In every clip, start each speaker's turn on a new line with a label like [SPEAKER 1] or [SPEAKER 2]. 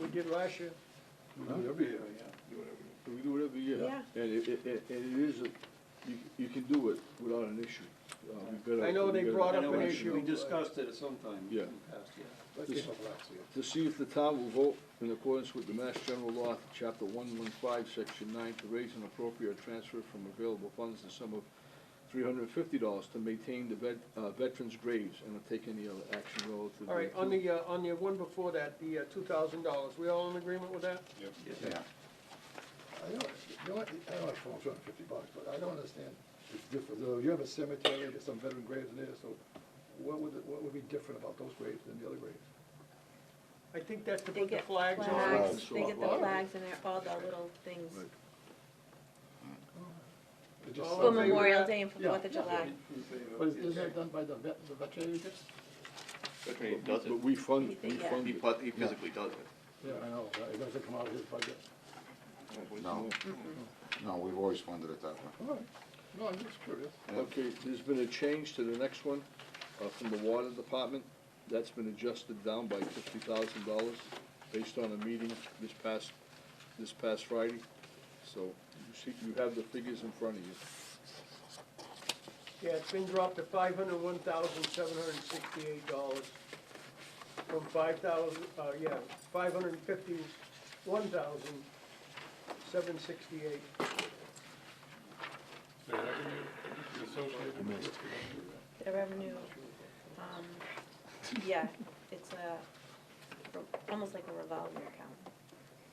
[SPEAKER 1] we did last year.
[SPEAKER 2] We do it every year, yeah. We do it every year.
[SPEAKER 1] Yeah.
[SPEAKER 2] And it, it, it- and it is, a- you, you can do it without an issue. Uh, we've got a-
[SPEAKER 1] I know they
[SPEAKER 2] we've got a-
[SPEAKER 1] brought
[SPEAKER 3] I
[SPEAKER 1] up
[SPEAKER 3] know
[SPEAKER 1] an
[SPEAKER 3] we-
[SPEAKER 1] issue.
[SPEAKER 3] We discussed it at some time in
[SPEAKER 2] Yeah.
[SPEAKER 3] the past, yeah.
[SPEAKER 2] This- To see if the town will vote in accordance with the Mass General Law, Chapter one one five, Section nine, to raise an appropriate transfer from available funds the sum of three hundred and fifty dollars to maintain the vet, uh, veterans' graves, and to take any other action relative to.
[SPEAKER 1] All right, on the, uh, on the one before that, the uh, two thousand dollars, we all in agreement with that?
[SPEAKER 3] Yeah.
[SPEAKER 4] I don't, you know, what, I don't know if it's two hundred and fifty bucks, but I don't understand, it's different, though, you have a cemetery, there's some veteran graves there, so what would, what would be different about those graves than the other graves?
[SPEAKER 1] I think that's to
[SPEAKER 5] They
[SPEAKER 1] put the
[SPEAKER 5] get
[SPEAKER 1] flags on.
[SPEAKER 5] flags,
[SPEAKER 2] Flags.
[SPEAKER 5] they get the
[SPEAKER 2] Flags.
[SPEAKER 5] flags and they're all the little things
[SPEAKER 2] Right.
[SPEAKER 4] It's just
[SPEAKER 1] Oh,
[SPEAKER 5] for
[SPEAKER 4] something-
[SPEAKER 1] okay.
[SPEAKER 5] Memorial Day and for
[SPEAKER 4] Yeah.
[SPEAKER 5] Fourth of July.
[SPEAKER 3] In favor,
[SPEAKER 4] But is-
[SPEAKER 3] yes.
[SPEAKER 4] isn't that done by the vet, the veterinary district?
[SPEAKER 6] Veteran Aid does
[SPEAKER 2] But
[SPEAKER 6] it.
[SPEAKER 2] we fund, we
[SPEAKER 5] Yeah.
[SPEAKER 2] fund
[SPEAKER 6] He
[SPEAKER 2] it.
[SPEAKER 6] pu- he physically does it.
[SPEAKER 4] Yeah, I know,
[SPEAKER 7] Uh,
[SPEAKER 4] but it doesn't come out of his budget.
[SPEAKER 8] No, no, we've always funded it that way.
[SPEAKER 4] All right, no, I'm just curious.
[SPEAKER 2] Okay, there's been a change to the next one, uh, from the water department. That's been adjusted down by fifty thousand dollars based on a meeting this past, this past Friday. So you see, you have the figures in front of you.
[SPEAKER 1] Yeah, it's been dropped to five hundred one thousand seven hundred and sixty-eight dollars from five thousand, uh, yeah, five hundred and fifty-one thousand seven sixty-eight.
[SPEAKER 5] The revenue, um, yeah, it's a, almost like a revolving account.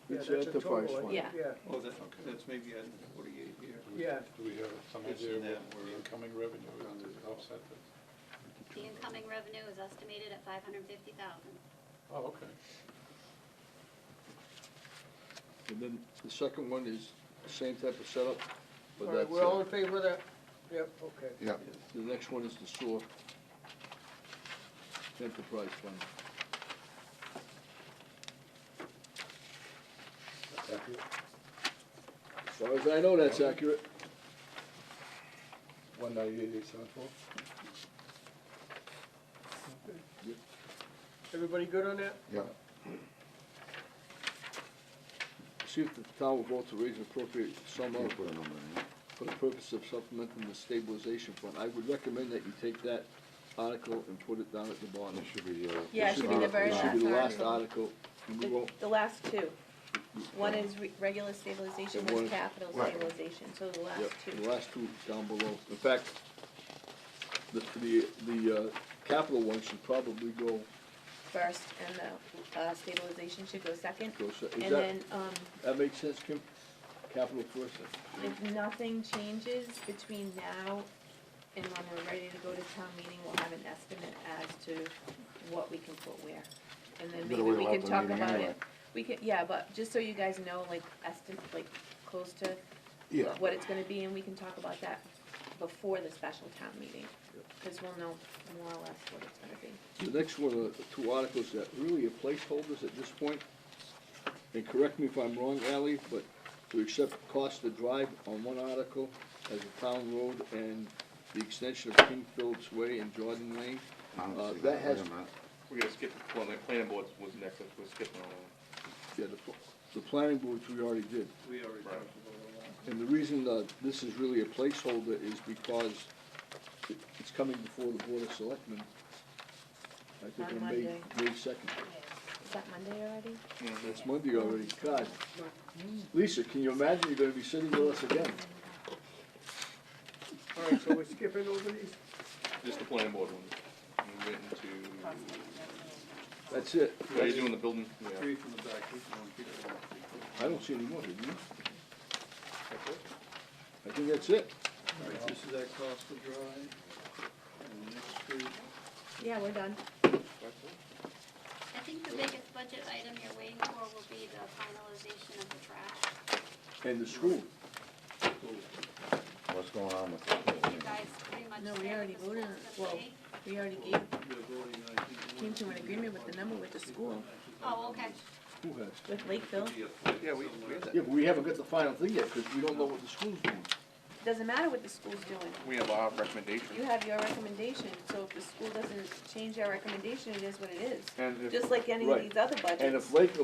[SPEAKER 1] Yeah,
[SPEAKER 2] It's
[SPEAKER 1] that's a total,
[SPEAKER 2] enterprise
[SPEAKER 1] I
[SPEAKER 2] fund.
[SPEAKER 1] think, Yeah,
[SPEAKER 3] Oh, that, that's maybe at forty-eight here.
[SPEAKER 1] yeah,
[SPEAKER 7] Do we have some
[SPEAKER 3] It's
[SPEAKER 7] idea
[SPEAKER 3] in there
[SPEAKER 7] what
[SPEAKER 3] where-
[SPEAKER 7] the incoming revenue is to offset this?
[SPEAKER 9] The incoming revenue is estimated at five hundred and fifty thousand.
[SPEAKER 7] Oh, okay.
[SPEAKER 2] And then the second one is the same type of
[SPEAKER 1] all
[SPEAKER 2] setup, but
[SPEAKER 1] right,
[SPEAKER 2] that's,
[SPEAKER 1] we're all
[SPEAKER 2] uh,
[SPEAKER 1] in favor of that? Yep, okay.
[SPEAKER 8] Yeah,
[SPEAKER 2] the next one is the sewer enterprise fund. As far as I know, that's accurate.
[SPEAKER 4] One ninety-eight, eight seven four?
[SPEAKER 1] Everybody good on that?
[SPEAKER 8] yeah.
[SPEAKER 2] See if the town will vote to raise an appropriate sum
[SPEAKER 8] You
[SPEAKER 2] of
[SPEAKER 8] put a number in there.
[SPEAKER 2] for the purpose of supplementing the stabilization fund. I would recommend that you take that article and put it down at the bottom.
[SPEAKER 8] It should be, uh.
[SPEAKER 5] Yeah, it should be the very
[SPEAKER 2] It should be the
[SPEAKER 5] last
[SPEAKER 2] last
[SPEAKER 5] article.
[SPEAKER 2] article, and we
[SPEAKER 5] The,
[SPEAKER 2] won't,
[SPEAKER 5] the last two. One is re- regular stabilization,
[SPEAKER 2] And
[SPEAKER 5] one's
[SPEAKER 2] one-
[SPEAKER 5] capital
[SPEAKER 8] Right.
[SPEAKER 5] stabilization, so the last
[SPEAKER 2] yep, the
[SPEAKER 5] two.
[SPEAKER 2] last two down below. In fact, the, the, the, uh, capital one should probably go,
[SPEAKER 5] First, and the, uh, stabilization should go second.
[SPEAKER 2] go, se- is
[SPEAKER 5] And
[SPEAKER 2] that,
[SPEAKER 5] then, um,
[SPEAKER 2] that makes sense, Kim? Capital first,
[SPEAKER 5] if nothing changes between now and when we're ready to go to town meeting, we'll have an estimate as to what we can put where. And then maybe
[SPEAKER 8] Better wait
[SPEAKER 5] we
[SPEAKER 8] till
[SPEAKER 5] can
[SPEAKER 8] after the
[SPEAKER 5] talk
[SPEAKER 8] meeting
[SPEAKER 5] about
[SPEAKER 8] anyway.
[SPEAKER 5] it. We could, yeah, but just so you guys know, like, estimate, like, close to
[SPEAKER 8] Yeah,
[SPEAKER 5] what it's gonna be, and we can talk about that before the special town meeting, because we'll know more or less what it's gonna be.
[SPEAKER 2] The next one are the two articles that really are placeholders at this point. And correct me if I'm wrong, Ally, but to accept Costa Drive on one article as a town road and the extension of King Phillips Way and Jordan Lane.
[SPEAKER 8] I don't
[SPEAKER 2] Uh,
[SPEAKER 8] see
[SPEAKER 2] that
[SPEAKER 8] that, wait
[SPEAKER 2] has,
[SPEAKER 8] a minute.
[SPEAKER 6] We're gonna skip, well, the planning board was next, we're skipping on that.
[SPEAKER 2] yeah, the, pl- the planning board, which we already did.
[SPEAKER 3] We already talked
[SPEAKER 6] Right.
[SPEAKER 3] about that.
[SPEAKER 2] And the reason that this is really a placeholder is because it, it's coming before the Board of Selectmen. I think
[SPEAKER 5] On
[SPEAKER 2] on May,
[SPEAKER 5] Monday.
[SPEAKER 2] May second.
[SPEAKER 5] Is that Monday already?
[SPEAKER 2] It's Monday already, God. Lisa, can you imagine you're gonna be sitting with us again?
[SPEAKER 1] All right, so we're skipping over these?
[SPEAKER 6] Just the planning board one. We went into,
[SPEAKER 2] That's it.
[SPEAKER 6] are you doing the building? Yeah.
[SPEAKER 3] Three from the back, this one, Peter, one, three.
[SPEAKER 2] I don't see any more, do you? I think that's it.
[SPEAKER 3] All right, this is at Costa Drive, and the next street.
[SPEAKER 5] Yeah, we're done.
[SPEAKER 9] I think the biggest budget item you're waiting for will be the finalization of the trash.
[SPEAKER 2] And the school.
[SPEAKER 8] what's going on with it?
[SPEAKER 9] You guys pretty much
[SPEAKER 5] No, we
[SPEAKER 9] say what
[SPEAKER 5] already
[SPEAKER 9] the
[SPEAKER 5] voted on it.
[SPEAKER 9] school's gonna
[SPEAKER 5] Well-
[SPEAKER 9] be.
[SPEAKER 5] We already gave,
[SPEAKER 3] They're voting, I think.
[SPEAKER 5] came to an agreement with the number with the school,
[SPEAKER 9] Oh, okay.
[SPEAKER 2] Who has?
[SPEAKER 5] with Lakeville.
[SPEAKER 6] Yeah, we, we had
[SPEAKER 2] Yeah,
[SPEAKER 6] that.
[SPEAKER 2] but we haven't got the final thing yet, because we don't know what the school's doing.
[SPEAKER 5] Doesn't matter what the school's doing.
[SPEAKER 6] We have our
[SPEAKER 5] You
[SPEAKER 6] recommendation.
[SPEAKER 5] have your recommendation, so if the school doesn't change our recommendation, it is what it is.
[SPEAKER 2] And if-
[SPEAKER 5] Just like any of
[SPEAKER 2] right.
[SPEAKER 5] these other budgets.
[SPEAKER 2] And if Lakeville